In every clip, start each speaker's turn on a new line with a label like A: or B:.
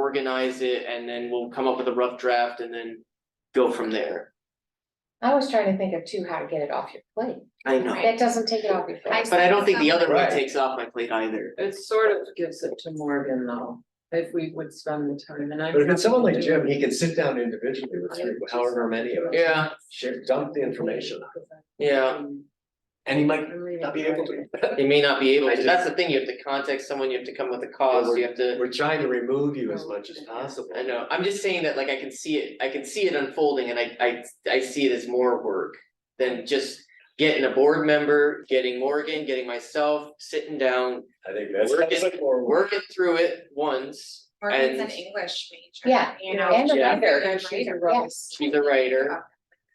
A: organize it and then we'll come up with a rough draft and then go from there.
B: I was trying to think of too, how to get it off your plate.
A: I know,
B: That doesn't take it off your plate.
A: but I don't think the other one
C: Right.
A: takes off my plate either.
D: It sort of gives it to Morgan though, if we would spend the time and I'm.
C: But if it's someone
D: happy
C: like
D: to do
C: Jim, he can sit down individually with three, however many of us.
A: Yeah,
C: Share, dump the information,
A: yeah,
D: Um,
C: and he might
D: I'm reading
C: not be able to.
A: you may not be able
C: I
A: to, that's the thing, you have to contact someone, you have to come with a cause, you have to,
C: We're trying to remove you as much as possible.
A: I know, I'm just saying that like I can see it, I can see it unfolding and I I I see it as more work than just getting a board member, getting Morgan, getting myself, sitting down,
C: I think that's.
A: Work it-
C: that's like more work.
A: working through it once
E: Morgan's an
A: and
E: English major.
B: Yeah,
E: You know.
B: and a
A: Yeah.
B: writer,
D: Yeah, she's a writer.
B: yes.
A: she's a writer.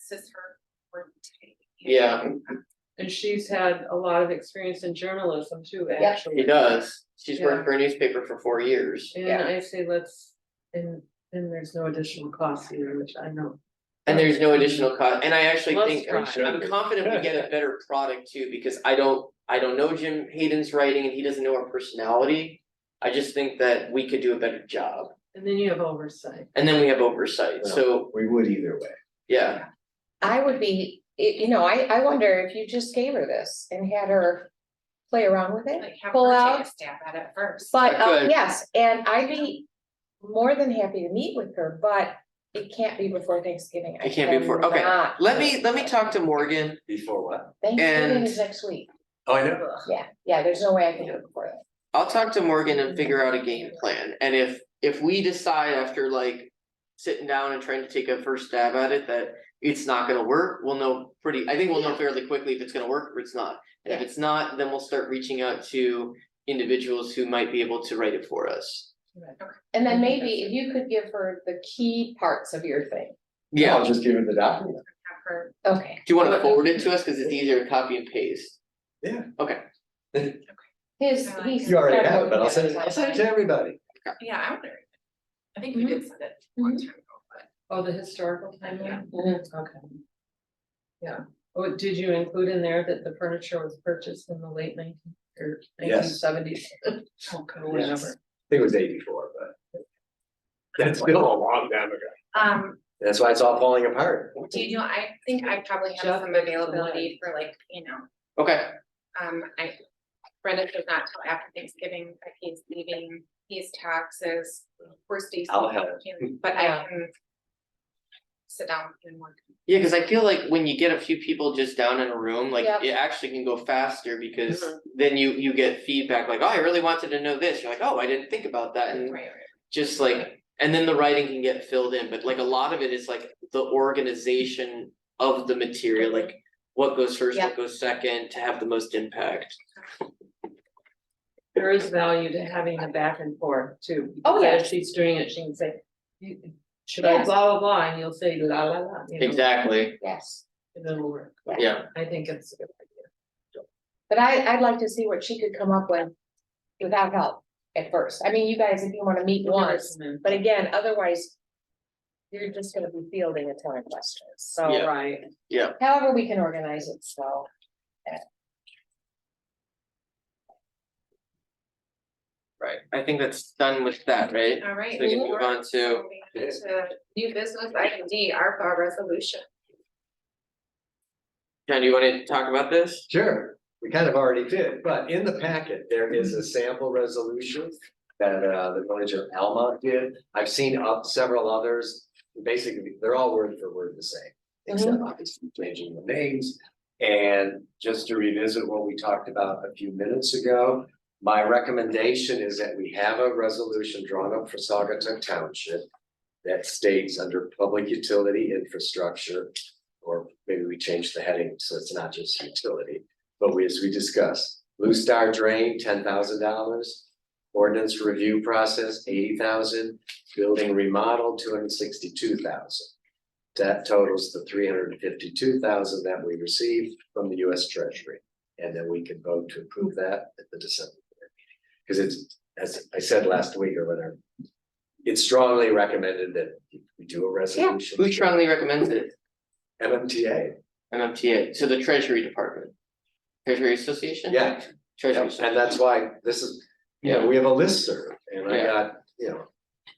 E: This is her. work take, you know.
A: Yeah,
D: And she's had a lot of experience in journalism too,
B: Yeah.
D: actually.
A: she does. She's worked for a newspaper for four years.
D: And
B: Yeah.
D: I say let's, and and there's no additional cost either, which I know.
A: And there's no additional cost, and I actually
D: Let's
A: think,
D: try.
A: I'm confident we get a better product too, because I don't, I don't know Jim Hayden's writing and he doesn't know our personality. I just think that we could do a better job,
D: And then you have oversight.
A: and then we have oversight, so,
C: We would either way.
A: yeah,
B: I would be, it- you know, I, I wonder if you just gave her this and had her play around with it.
E: Like have
B: Pull
E: her
B: out.
E: take a stab at it first.
B: But, uh,
A: Good.
B: yes, and I'd be more than happy to meet with her, but it can't be before Thanksgiving. I
A: It can't be before- okay.
B: cannot.
A: let me, let me talk to Morgan.
C: Before what?
B: Thanksgiving
A: and-
B: is next week,
C: Oh, I know.
B: yeah, yeah, there's no way I can do it before that.
A: I'll talk to Morgan and figure out a game plan, and if, if we decide after like. Sitting down and trying to take a first stab at it that it's not gonna work, we'll know pretty, I think we'll know fairly quickly if it's gonna work or it's not. And if
B: Yeah.
A: it's not, then we'll start reaching out to individuals who might be able to write it for us.
B: And then maybe if you could give her the key parts of your thing,
A: Yeah,
C: I'll just give him the document.
E: Have her,
B: okay,
A: do you wanna forward it to us, cause it's easier to copy and paste?
B: his,
E: I like
B: he's.
E: it.
C: You already have it, but I'll send it, I'll send it to everybody.
E: yeah, I would. I think
B: Mm-hmm.
E: we did send it a long time ago, but
D: Oh, the historical timeline? Mm-hmm.
B: Mhm.
D: Okay. Yeah, oh, did you include in there that the furniture was purchased in the late nineteen or nineteen
C: Yes.
D: seventies? Oh, God, whatever.
C: I think it was eighty-four, but. That's still a long time ago.
E: um,
C: That's why it's all falling apart.
E: do you know, I think I probably have
D: Jeff
E: some
D: is the
E: availability for like, you know,
A: Okay,
E: um, I. Brendan does not till after Thanksgiving, but he's leaving, he's taxes, we're Stacy.
C: I'll help.
E: But I
B: Yeah.
E: can. Sit down and work.
A: yeah, cause I feel like when you get a few people just down in a room, like
B: Yep.
A: it actually can go faster because.
E: Mm-hmm.
D: Mhm.
A: Then you, you get feedback like, oh, I really wanted to know this, you're like, oh, I didn't think about that, and
E: Right, right.
A: just like, and then the writing can get filled in, but like a lot of it is like the organization of the material,
E: Mm-hmm.
A: like what goes first, what goes second, to have the most impact.
D: There is value to having a back and forth too.
B: Oh,
D: because
B: yeah.
D: If she's doing it, she can say, "You- should I blah, blah, blah, and you'll say la, la, la. you know,
A: Exactly,
B: Yes.
D: and It'll work.
A: yeah,
D: I think it's a good idea.
B: But I, I'd like to see what she could come up with without help at first. I mean, you guys, if you wanna meet once, but again, otherwise. You're just gonna be fielding a ton of questions, so
A: Yeah.
D: Right,
B: however we can organize it, so.
A: right, I think that's done with that, right?
E: All right.
A: So we can move
E: we're
A: on to-
E: moving to New business item D, ARPA resolution.
A: John, do you wanna talk about this?
C: Sure, we kind of already did, but in the packet, there is a sample resolution that uh the village of Alma did. I've seen up several others. Basically, they're all word for word the same, except obviously changing the names. And just to revisit what we talked about a few minutes ago, my recommendation is that we have a resolution drawn up for Sagatuck Township that states under public utility infrastructure or maybe we change the heading, so it's not just utility. But we, as we discussed, Blue Star Drain, ten thousand dollars. Ordinance review process, eighty thousand, building remodel, two hundred sixty-two thousand. That totals the three hundred and fifty-two thousand that we received from the US Treasury. And then we can vote to approve that at the December board meeting. Because it's, as I said last week or whatever, it's strongly recommended that we do a resolution.
A: Who strongly recommends it?
C: MMTA,
A: MMTA, so the Treasury Department. Treasury Association?
C: yeah.
A: Treasury.
C: Yep, And that's why this is, you know, we have a listserv and I
A: Yeah.
C: got, you know,